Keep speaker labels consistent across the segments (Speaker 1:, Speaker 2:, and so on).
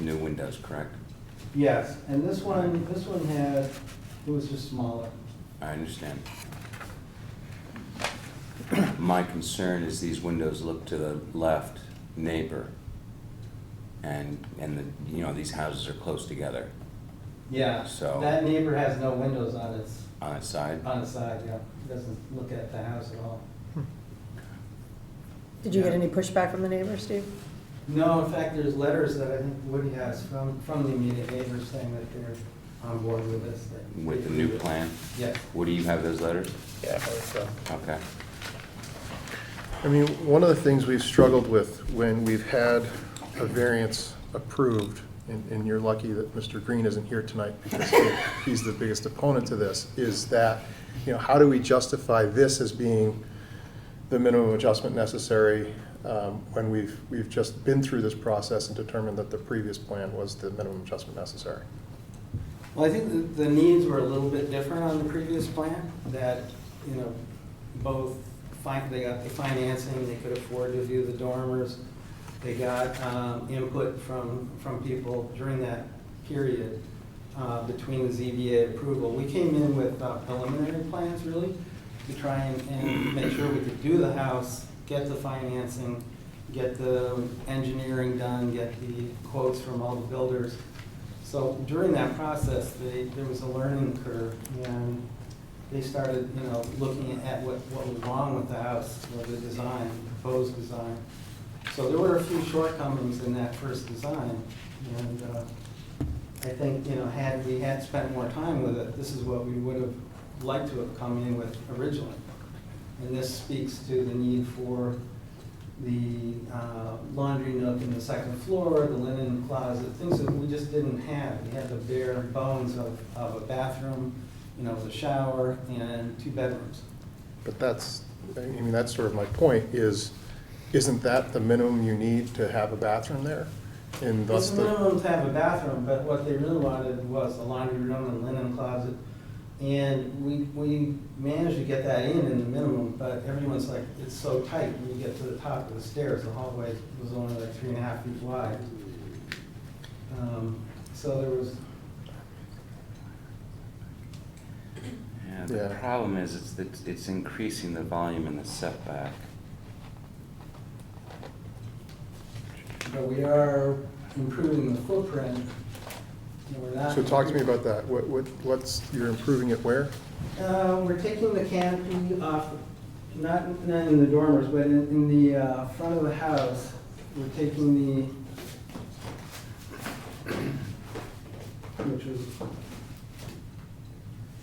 Speaker 1: new windows, correct?
Speaker 2: Yes, and this one, this one had, it was just smaller.
Speaker 1: I understand. My concern is these windows look to the left neighbor. And, and the, you know, these houses are close together
Speaker 2: Yeah.
Speaker 1: So-
Speaker 2: That neighbor has no windows on its,
Speaker 1: on its side.
Speaker 2: on its side, yeah. He Doesn't look at the house at all.
Speaker 3: Did you get any pushback from the neighbors, Steve?
Speaker 2: No, in fact, there's letters that I think Woody has from, from the immediate neighbors saying that they're on board with this. that-
Speaker 1: With the new plan?
Speaker 2: Yeah.
Speaker 1: What, do you have those letters?
Speaker 4: Yeah, I think so.
Speaker 1: Okay.
Speaker 4: I mean, one of the things we've struggled with when we've had a variance approved, and, and you're lucky that Mr. Green isn't here tonight because he- he's the biggest opponent to this, is that, you know, how do we justify this as being the minimum adjustment necessary um, when we've, we've just been through this process and determined that the previous plan was the minimum adjustment necessary?
Speaker 2: Well, I think the, the needs were a little bit different on the previous plan, that, you know, both, fin- they got the financing, they could afford to do the dormers, they got um, input from, from people during that period uh, between the ZBA approval. We came in with uh, preliminary plans, really, to try and, and make sure we could do the house, get the financing, get the engineering done, get the quotes from all the builders. So during that process, they, there was a learning curve, and they started, you know, looking at what, what was wrong with the house, with the design, proposed design. So there were a few shortcomings in that first design, and uh, I think, you know, had we had spent more time with it, this is what we would have liked to have come in with originally. And this speaks to the need for the uh, laundry nook in the second floor, the linen closet, things that we just didn't have. We had the bare bones of, of a bathroom, you know, with a shower and two bedrooms.
Speaker 4: But that's, I mean, that's sort of my point, is, isn't that the minimum you need to have a bathroom there? And thus
Speaker 2: It's
Speaker 4: the.
Speaker 2: minimum to have a bathroom, but what they really wanted was a laundry room and linen closet. And we, we managed to get that in in the minimum, but everyone's like, it's so tight when you get to the top of the stairs. The hallway was only like three and a half feet wide. Um, So there was,
Speaker 1: Yeah, the
Speaker 4: Yeah.
Speaker 1: problem is, it's, it's- it's increasing the volume in the setback.
Speaker 2: But we are improving the footprint. and we're not-
Speaker 4: So talk to me about that. What, what, what's, you're improving it where?
Speaker 2: Uh, we're taking the canopy off, not, not in the dormers, but in, in the, uh, front of the house. We're taking the, which is,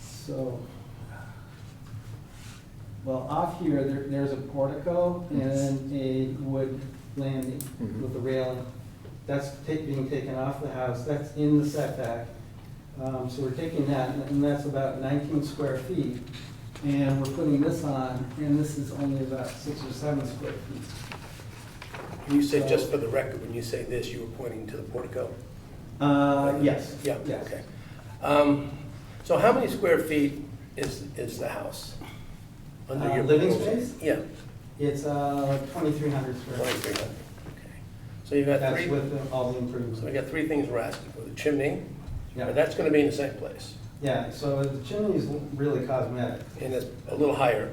Speaker 2: so. Well, off here, there, there's a portico and a wood landing
Speaker 4: Mhm.
Speaker 2: with a railing. That's take, being taken off the house, that's in the setback. Um, so we're taking that, and that's about nineteen square feet. And we're putting this on, and this is only about six or seven square feet.
Speaker 5: You said, just for the record, when you say this, you were pointing to the portico?
Speaker 2: Uh, yes.
Speaker 5: Yeah,
Speaker 2: yes.
Speaker 5: okay. Um, So how many square feet is, is the house? under
Speaker 2: Uh,
Speaker 5: your
Speaker 2: living
Speaker 5: proposal?
Speaker 2: space?
Speaker 5: Yeah,
Speaker 2: It's, uh, twenty-three hundred square feet.
Speaker 5: twenty-three hundred, okay. So you've got
Speaker 2: That's
Speaker 5: three,
Speaker 2: with the- all the
Speaker 5: so we
Speaker 2: improvements.
Speaker 5: got three things we're asking for, the chimney, but
Speaker 2: Yeah,
Speaker 5: that's gonna be in the same place,
Speaker 2: yeah, so the chimney's really cosmetic.
Speaker 5: and it's a little higher.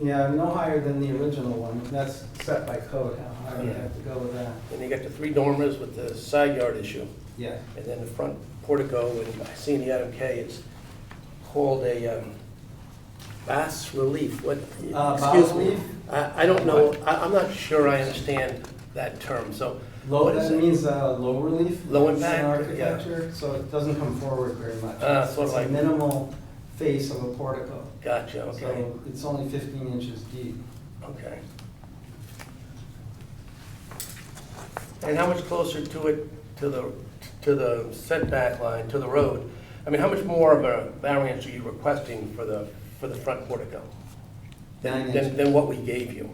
Speaker 2: Yeah, no higher than the original one, that's set by code, how high you have to go with that.
Speaker 5: And you got the three dormers with the side yard issue,
Speaker 2: Yeah,
Speaker 5: and then the front portico, and I see in the item K, it's called a um, bas relief, what?
Speaker 2: Uh, bas
Speaker 5: excuse me.
Speaker 2: relief?
Speaker 5: I, I don't know, I, I'm not sure I understand that term, so.
Speaker 2: low,
Speaker 5: what is
Speaker 2: that
Speaker 5: it?
Speaker 2: means, uh, low relief.
Speaker 5: Low
Speaker 2: It's
Speaker 5: impact,
Speaker 2: in
Speaker 5: yeah.
Speaker 2: Architecture, so it doesn't come forward very much.
Speaker 5: Uh, sort
Speaker 2: It's
Speaker 5: of
Speaker 2: a
Speaker 5: like-
Speaker 2: Minimal face of a portico.
Speaker 5: Gotcha, okay,
Speaker 2: So it's only fifteen inches deep.
Speaker 5: okay. And how much closer to it, to the, to the setback line, to the road? I mean, how much more of a variance are you requesting for the, for the front portico?
Speaker 2: Nine
Speaker 5: Than,
Speaker 2: inches.
Speaker 5: than than what we gave you?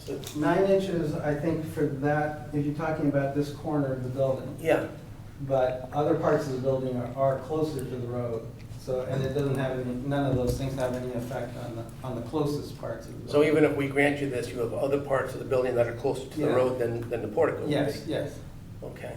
Speaker 5: So,
Speaker 2: Nine inches, I think, for that, if you're talking about this corner of the building.
Speaker 5: yeah.
Speaker 2: But other parts of the building are, are closer to the road, so, and it doesn't have any, none of those things have any effect on the, on the closest parts of the
Speaker 5: So
Speaker 2: building.
Speaker 5: even if we grant you this, you have other parts of the building that are closer to the
Speaker 2: Yeah.
Speaker 5: road than, than the portico? would be?
Speaker 2: Yes, yes.
Speaker 5: Okay.